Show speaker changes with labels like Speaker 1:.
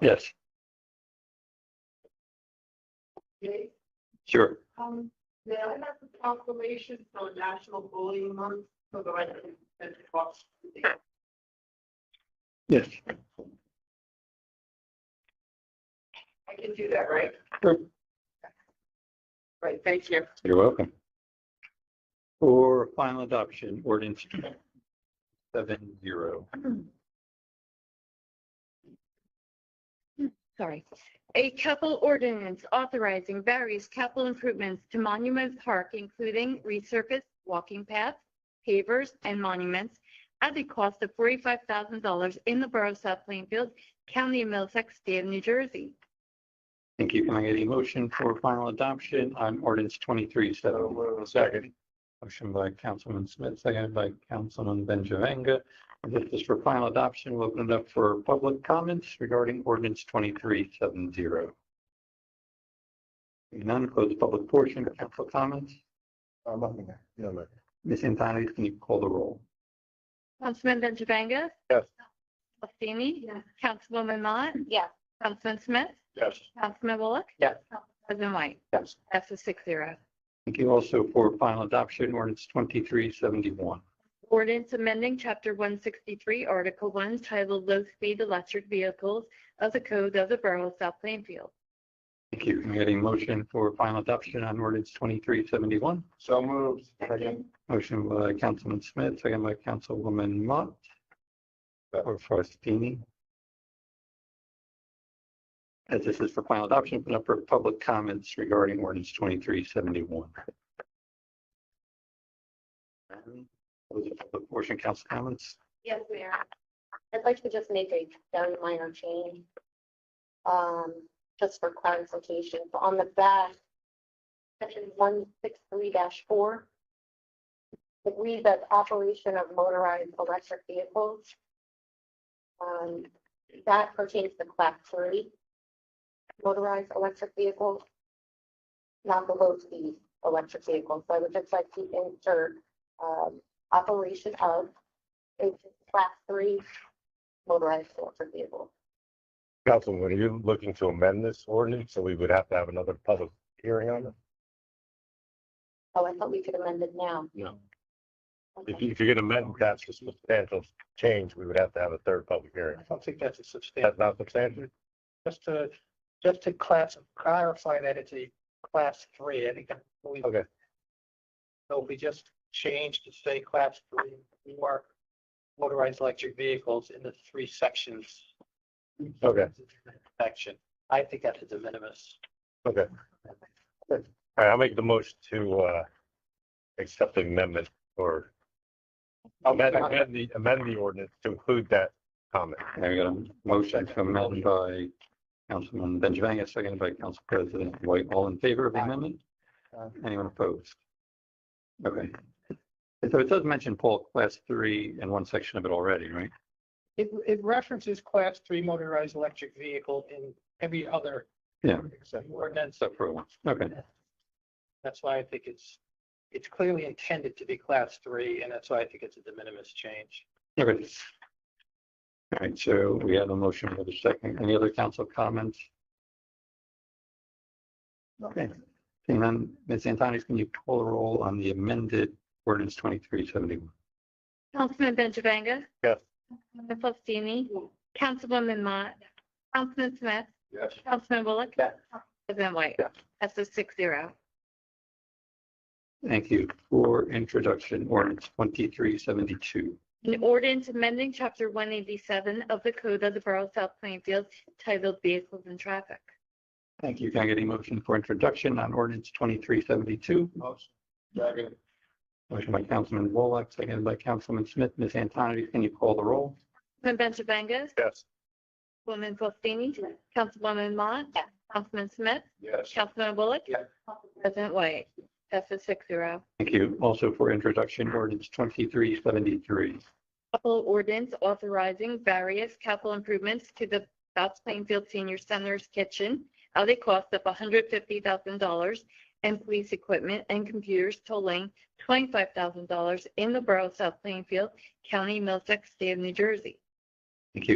Speaker 1: Yes.
Speaker 2: Okay,
Speaker 1: Sure.
Speaker 2: um, may I have the proclamation for National Bullying Month, so that I can send it off to the
Speaker 1: Yes.
Speaker 2: I can do that, right?
Speaker 1: Sure.
Speaker 2: Right, thank you.
Speaker 1: You're welcome. For final adoption, ordinance seven zero.
Speaker 3: sorry, a capital ordinance authorizing various capital improvements to Monument Park, including resurfaced walking paths, pavers, and monuments at the cost of forty-five thousand dollars in the Borough of South Plainfield, County of Middlesex, State of New Jersey.
Speaker 1: Thank you. Can I get a motion for final adoption on ordinance twenty-three seven? Second. Motion by Councilman Smith, seconded by Councilman Benjavanga. This is for final adoption. We'll open it up for public comments regarding ordinance twenty-three seven zero. None, close the public portion. Council comments?
Speaker 4: I'm nothing. Yeah, man.
Speaker 1: Ms. Antoni, can you call the roll?
Speaker 3: Councilman Benjavanga?
Speaker 4: Yes.
Speaker 3: Bassini? Councilwoman Mott? Yes. Councilman Smith?
Speaker 4: Yes.
Speaker 3: Councilman Bullock?
Speaker 1: Yes.
Speaker 3: President White?
Speaker 1: Yes.
Speaker 3: That's a six zero.
Speaker 1: Thank you also for final adoption, ordinance twenty-three seventy-one.
Speaker 3: Ordinance amending Chapter 163, Article 1, titled Low-Speed Electric Vehicles of the Code of the Borough of South Plainfield.
Speaker 1: Thank you. Can I get a motion for final adoption on ordinance twenty-three seventy-one?
Speaker 4: So moved.
Speaker 1: Motion by Councilman Smith, second by Councilwoman Mott. Or Forestini. As this is for final adoption, open up for public comments regarding ordinance twenty-three seventy-one. Portion council comments.
Speaker 5: Yes, Mayor. I'd like to just make a very minor change. Um, just for clarification, So on the back, section one six three four. It reads as operation of motorized electric vehicles. Um, that pertains to class three. Motorized electric vehicles. Not the low speed electric vehicles, so I would just like to insert, um, operation of it's class three motorized electric vehicle.
Speaker 4: Councilman, are you looking to amend this ordinance? So we would have to have another public hearing on it?
Speaker 5: Oh, I thought we could amend it now.
Speaker 4: No.
Speaker 5: Okay.
Speaker 4: If you, if you're gonna amend, that's a substantial change. We would have to have a third public hearing.
Speaker 6: I don't think that's a substantial,
Speaker 4: That's not substantial?
Speaker 6: just to, just to class, clarify that it's a class three, I think. that we-
Speaker 4: Okay.
Speaker 6: So we just changed to say class three, or motorized electric vehicles in the three sections.
Speaker 4: Okay.
Speaker 6: Section, I think that's a de minimis.
Speaker 4: Okay. All right, I'll make the motion to, uh, accept the amendment or amend, amend the, amend the ordinance to include that comment.
Speaker 1: There you go. Motion to amend by Councilman Benjavanga, seconded by Council President White. All in favor of the amendment? Anyone opposed? Okay. So it does mention Paul Class Three in one section of it already, right?
Speaker 6: It, it references class three motorized electric vehicle in every other.
Speaker 1: Yeah.
Speaker 6: Ordinance,
Speaker 1: Except for one. Okay.
Speaker 6: that's why I think it's, it's clearly intended to be class three, and that's why I think it's a de minimis change.
Speaker 1: Okay. All right, so we have a motion for the second. Any other council comments? Okay. Seeing none, Ms. Antonis, can you call the roll on the amended ordinance twenty-three seventy-one?
Speaker 3: Councilman Benjavanga?
Speaker 4: Yes.
Speaker 3: Councilman Faustini? Councilwoman Mott? Councilman Smith?
Speaker 4: Yes.
Speaker 3: Councilman Bullock?
Speaker 1: Yes.
Speaker 3: President White?
Speaker 1: Yes.
Speaker 3: That's a six zero.
Speaker 1: Thank you for introduction, ordinance twenty-three seventy-two.
Speaker 3: An ordinance amending Chapter 187 of the Code of the Borough of South Plainfield titled Vehicles and Traffic.
Speaker 1: Thank you. Can I get a motion for introduction on ordinance twenty-three seventy-two? Motion by Councilman Wallach, seconded by Councilman Smith. Ms. Antoni, can you call the roll?
Speaker 3: Councilman Benjavanga?
Speaker 4: Yes.
Speaker 3: Woman Faustini? Councilwoman Mott?
Speaker 5: Yes.
Speaker 3: Councilman Smith?
Speaker 4: Yes.
Speaker 3: Councilman Bullock?
Speaker 6: Yes.
Speaker 3: President White? That's a six zero.
Speaker 1: Thank you. Also for introduction, ordinance twenty-three seventy-three.
Speaker 3: Couple ordinance authorizing various capital improvements to the South Plainfield Senior Center's kitchen at a cost of hundred fifty thousand dollars and police equipment and computers totaling twenty-five thousand dollars in the borough of South Plainfield, County, Middlesex, State of New Jersey.